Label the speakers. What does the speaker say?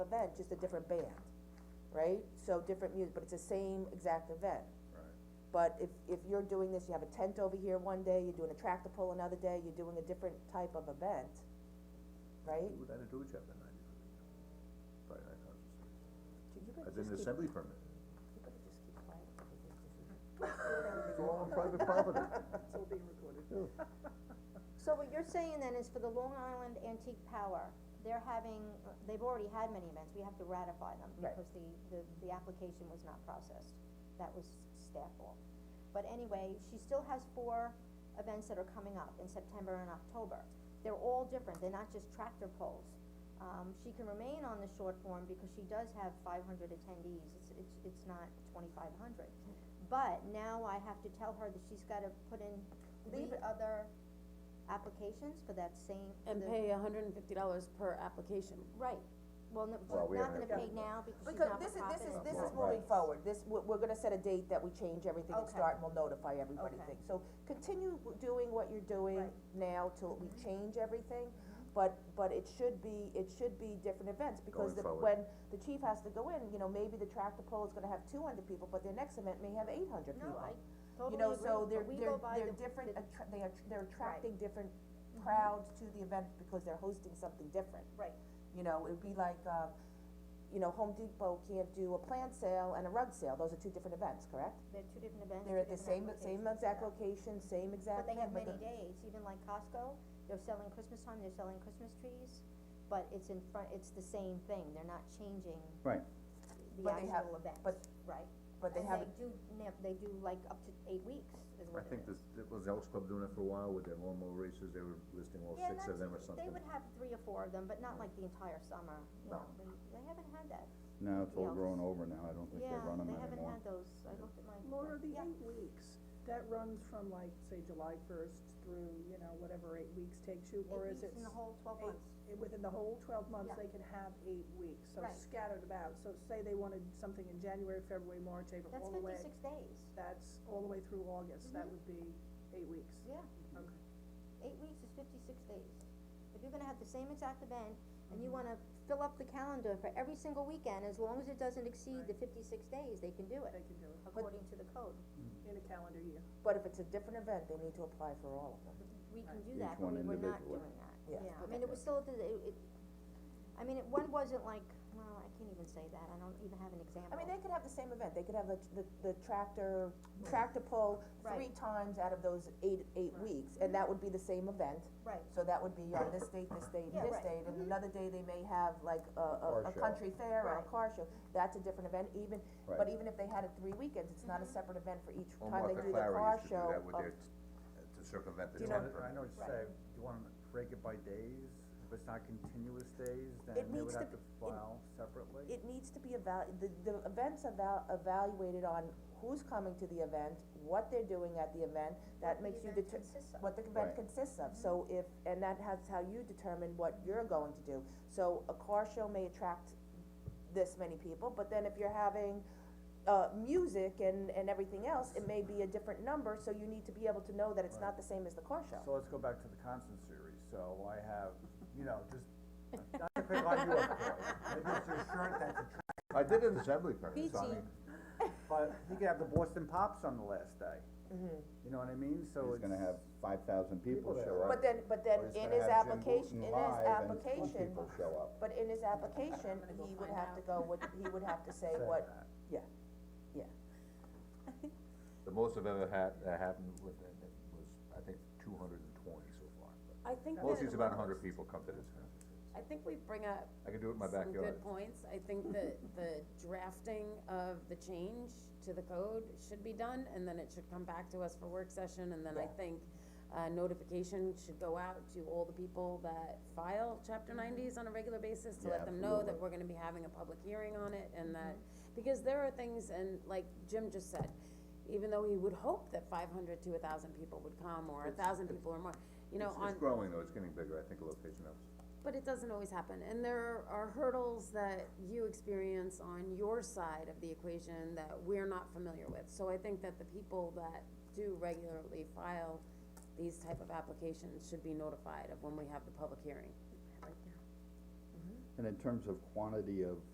Speaker 1: event, just a different band, right? So different music, but it's the same exact event.
Speaker 2: Right.
Speaker 1: But if, if you're doing this, you have a tent over here one day, you're doing a tractor pull another day, you're doing a different type of event, right?
Speaker 2: Would that do a chapter ninety for me? Probably nine thousand six.
Speaker 1: Dude, you better
Speaker 2: As
Speaker 1: just
Speaker 2: in an
Speaker 1: keep-
Speaker 2: assembly permit.
Speaker 1: you better just keep quiet with this, this is-
Speaker 2: It's all on private property.
Speaker 3: So what you're saying then is for the Long Island Antique Power, they're having, they've already had many events, we have to ratify them
Speaker 1: Right.
Speaker 3: because the, the, the application was not processed. That was staff fault. But anyway, she still has four events that are coming up in September and October. They're all different, they're not just tractor pulls. Um, she can remain on the short form because she does have five hundred attendees, it's, it's, it's not twenty-five hundred. But now I have to tell her that she's gotta put in
Speaker 1: Leave
Speaker 3: three
Speaker 1: it-
Speaker 3: other applications for that same, for
Speaker 4: And
Speaker 3: the-
Speaker 4: pay hundred and fifty dollars per application.
Speaker 3: right, well, no,
Speaker 2: Well, we
Speaker 3: she's not
Speaker 2: haven't
Speaker 3: gonna
Speaker 2: had
Speaker 3: pay
Speaker 2: that.
Speaker 3: now because she's
Speaker 1: Because
Speaker 3: not
Speaker 1: this
Speaker 3: for
Speaker 1: is, this is,
Speaker 3: profit.
Speaker 1: this
Speaker 2: Well,
Speaker 1: is moving
Speaker 2: right.
Speaker 1: forward, this, we're, we're gonna set a date that we change everything and
Speaker 3: Okay.
Speaker 1: start, and we'll notify everybody
Speaker 3: Okay.
Speaker 1: things. So continue w- doing what you're doing
Speaker 3: Right. Mm-hmm.
Speaker 1: now till we change everything, but, but it should be, it should be different events, because
Speaker 2: Going
Speaker 1: the,
Speaker 2: forward.
Speaker 1: when the chief has to go in, you know, maybe the tractor pull is gonna have two hundred people, but their next event may have eight hundred people.
Speaker 3: No, I totally
Speaker 1: You know, so
Speaker 3: agree,
Speaker 1: they're,
Speaker 3: but we
Speaker 1: they're,
Speaker 3: go by
Speaker 1: they're
Speaker 3: the-
Speaker 1: different,
Speaker 3: the- Mm-hmm.
Speaker 1: attra- they are, they're attracting different crowds to the event because they're hosting something different.
Speaker 3: Right,
Speaker 1: You know, it'd be like, uh, you know, Home Depot can't do a plant sale and a rug sale, those are two different events, correct?
Speaker 3: they're two different events,
Speaker 1: They're at the
Speaker 3: two
Speaker 1: same,
Speaker 3: different
Speaker 1: same
Speaker 3: applications,
Speaker 1: exact
Speaker 3: yeah.
Speaker 1: location, same
Speaker 3: But
Speaker 1: exact.
Speaker 3: they have
Speaker 1: thing,
Speaker 3: many
Speaker 1: the-
Speaker 3: days, even like Costco, they're selling Christmas time, they're selling Christmas trees, but it's in front, it's the same thing, they're not changing
Speaker 5: Right.
Speaker 3: the
Speaker 1: But they have-
Speaker 3: actual event,
Speaker 1: but-
Speaker 3: right?
Speaker 1: But they have,
Speaker 3: And they do, nip- they do like up to eight weeks is
Speaker 2: I
Speaker 3: what it
Speaker 2: think
Speaker 3: is.
Speaker 2: this, it was Elks Club doing it for a while with their lawnmower races, they were listing all
Speaker 3: Yeah,
Speaker 2: six of
Speaker 3: that's-
Speaker 2: them or something.
Speaker 3: They would have three or four of them, but not like the entire summer, you
Speaker 2: No.
Speaker 3: know, they, they haven't had that.
Speaker 5: Now it's all
Speaker 3: Yeah.
Speaker 5: grown over now, I don't think they
Speaker 3: Yeah,
Speaker 5: run them
Speaker 3: they
Speaker 5: anymore.
Speaker 3: haven't had those, I looked at my.
Speaker 6: Laura, the
Speaker 3: yeah.
Speaker 6: eight weeks, that runs from like, say, July first through, you know, whatever eight weeks takes you, or
Speaker 3: Eight
Speaker 6: is it?
Speaker 3: weeks in the
Speaker 6: s-
Speaker 3: whole twelve
Speaker 6: eight-
Speaker 3: months.
Speaker 6: eh, Within the whole twelve months,
Speaker 3: Yeah.
Speaker 6: they can have eight weeks, so
Speaker 3: Right.
Speaker 6: scattered about, so say they wanted something in January, February, March, April,
Speaker 3: That's
Speaker 6: all the way,
Speaker 3: fifty-six days,
Speaker 6: that's all the way through August, that
Speaker 3: Mhm.
Speaker 6: would be eight weeks.
Speaker 3: yeah,
Speaker 6: Okay.
Speaker 3: eight weeks is fifty-six days. If you're gonna have the same exact event, and you
Speaker 6: Mm-hmm.
Speaker 3: wanna fill up the calendar for every single weekend, as long as it doesn't exceed the fifty-six days, they can do
Speaker 6: They
Speaker 3: it,
Speaker 6: can do it
Speaker 3: according to the code.
Speaker 7: Mm.
Speaker 6: in a calendar year.
Speaker 1: but if it's a different event, they need to apply for all of them.
Speaker 3: We can do
Speaker 5: Each
Speaker 3: that, but
Speaker 5: one
Speaker 3: we were not
Speaker 5: individually.
Speaker 3: doing that,
Speaker 1: Yeah.
Speaker 3: yeah, I mean, it was still, the- it, it, I mean, it, one wasn't like, well, I can't even say that, I don't even have an example.
Speaker 1: I mean, they could have the same event, they could have the, the, the tractor, tractor pull three times out of those eight, eight weeks, and that would be the same event.
Speaker 3: Mm-hmm. Right.
Speaker 1: So that would be on this date, this date, and
Speaker 3: Yeah,
Speaker 1: this
Speaker 3: right. Mm-hmm.
Speaker 1: date, and another day they may have like a,
Speaker 2: Car
Speaker 1: a, a
Speaker 2: show.
Speaker 1: country fair or a
Speaker 3: Right.
Speaker 1: car show, that's a different event, even, but
Speaker 5: Right.
Speaker 1: even if they had it three weekends, it's not a
Speaker 3: Mm-hmm.
Speaker 1: separate event for each
Speaker 2: Well,
Speaker 1: time they
Speaker 2: Martha
Speaker 1: do the
Speaker 2: Clary
Speaker 1: car
Speaker 2: used to do
Speaker 1: show.
Speaker 2: that with
Speaker 1: of-
Speaker 2: their t- To circumvent the
Speaker 1: Do you
Speaker 2: ten
Speaker 1: know-
Speaker 7: I know what you say, you wanna break it by days, if it's not continuous days, then they
Speaker 1: needs to
Speaker 7: would have to
Speaker 1: be- it-
Speaker 7: file separately.
Speaker 1: It needs to be eval, the, the events eval, evaluated on who's coming to the event, what they're doing at the event, that
Speaker 3: the
Speaker 1: makes you
Speaker 3: event
Speaker 1: deter-
Speaker 3: consists of.
Speaker 1: what the event
Speaker 5: Right.
Speaker 1: consists of, so if, and that has how you determine what you're going to do. So a car show may attract this many people, but then if you're having, uh, music and, and everything else, it may be a different number, so you need to be able to know that it's not the same as the car show.
Speaker 7: So let's go back to the constant series, so I have, you know, just, not to pick on you, of course, maybe it's your shirt that's a tr-
Speaker 2: I did an assembly permit, so I
Speaker 4: Peachy.
Speaker 2: mean,
Speaker 7: but you could have the Boston Pops on the last day.
Speaker 1: Mm-hmm.
Speaker 7: You know what I mean, so
Speaker 5: He's
Speaker 7: it's.
Speaker 5: gonna have five thousand people
Speaker 7: People
Speaker 5: show
Speaker 7: there.
Speaker 5: up.
Speaker 1: But then, but then
Speaker 5: or he's
Speaker 1: in
Speaker 5: gonna
Speaker 1: his
Speaker 5: have Jim
Speaker 1: application,
Speaker 5: Wooten
Speaker 1: in
Speaker 5: live and
Speaker 1: his
Speaker 5: two
Speaker 1: application,
Speaker 5: people show up.
Speaker 1: But in his application, he would have to go, what, he would have to say
Speaker 7: Say
Speaker 1: what,
Speaker 7: that.
Speaker 1: yeah, yeah.
Speaker 2: the most I've ever had, that happened with, it was, I think, two hundred and twenty so far. but
Speaker 4: I think
Speaker 2: Mostly
Speaker 4: that-
Speaker 2: it's about a hundred people come to this conference,
Speaker 4: I think we bring up
Speaker 2: I can do it in my
Speaker 4: some
Speaker 2: backyard.
Speaker 4: good points. I think that the drafting of the change to the code should be done, and then it should come back to us for work session, and then I
Speaker 1: Yeah.
Speaker 4: think, uh, notification should go out to all the people that file chapter
Speaker 2: Mm-hmm.
Speaker 4: nineties on a regular basis, to
Speaker 5: Yeah,
Speaker 4: let them know that
Speaker 5: absolutely.
Speaker 4: we're gonna be having a public hearing on it, and that,
Speaker 2: Mm-hmm.
Speaker 4: because there are things, and like Jim just said, even though he would hope that five hundred to a thousand people would come, or a thousand people or more, you know,
Speaker 2: It's-
Speaker 4: on.
Speaker 2: It's growing though, it's getting bigger, I think the location helps.
Speaker 4: But it doesn't always happen, and there are hurdles that you experience on your side of the equation that we're not familiar with. So I think that the people that do regularly file these type of applications should be notified of when we have the public hearing.
Speaker 7: And in terms of quantity of